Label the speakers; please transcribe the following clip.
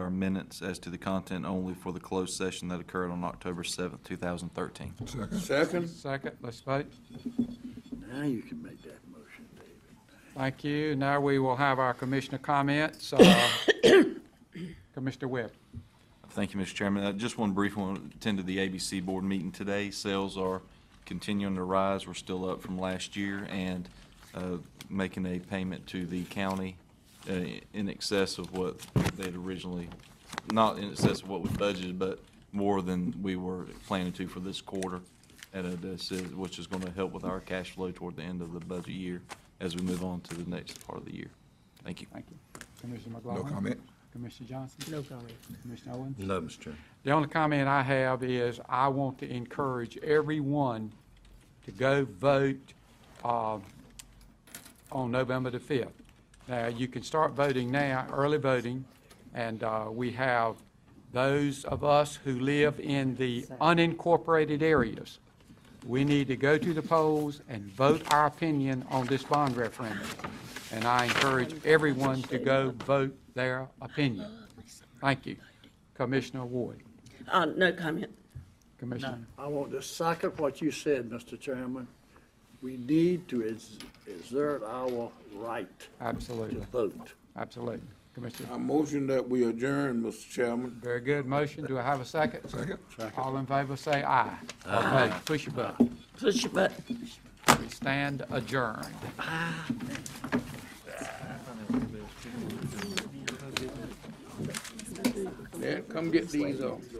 Speaker 1: our minutes as to the content only for the closed session that occurred on October 7th, 2013.
Speaker 2: Second?
Speaker 3: Second, let's vote.
Speaker 4: Now you can make that motion, David.
Speaker 3: Thank you. Now we will have our commissioner comments. Uh, Commissioner Webb.
Speaker 1: Thank you, Mr. Chairman. Uh, Just one brief one, attended the ABC Board meeting today. Sales are continuing to rise. We're still up from last year and uh, making a payment to the county uh, in excess of what they'd originally, not in excess of what we budgeted, but more than we were planning to for this quarter, at a- this is- which is going to help with our cash flow toward the end of the budget year as we move on to the next part of the year. Thank you.
Speaker 3: Thank you. Commissioner McLaughlin.
Speaker 2: comment.
Speaker 3: Commissioner Johnson. No comment. Commissioner Owens.
Speaker 5: No, Mr. Chairman.
Speaker 3: The only comment I have is I want to encourage everyone to go vote uh, on November the 5th. Now, you can start voting now, early voting, and uh, we have those of us who live in the unincorporated areas. We need to go to the polls and vote our opinion on this bond referendum. And I encourage everyone to go vote their opinion. Thank you. Commissioner Ward.
Speaker 6: Uh, no comment.
Speaker 3: Commissioner,
Speaker 4: I want to second what you said, Mr. Chairman. We need to ex- exert our right to
Speaker 3: absolutely,
Speaker 4: vote.
Speaker 3: absolutely. Commissioner,
Speaker 2: I motion that we adjourn, Mr. Chairman.
Speaker 3: very good motion. Do I have a second? Second. All in favor, say aye. Okay, push your button.
Speaker 6: Push your button.
Speaker 3: We stand adjourned.
Speaker 2: Yeah, come get these uh, off.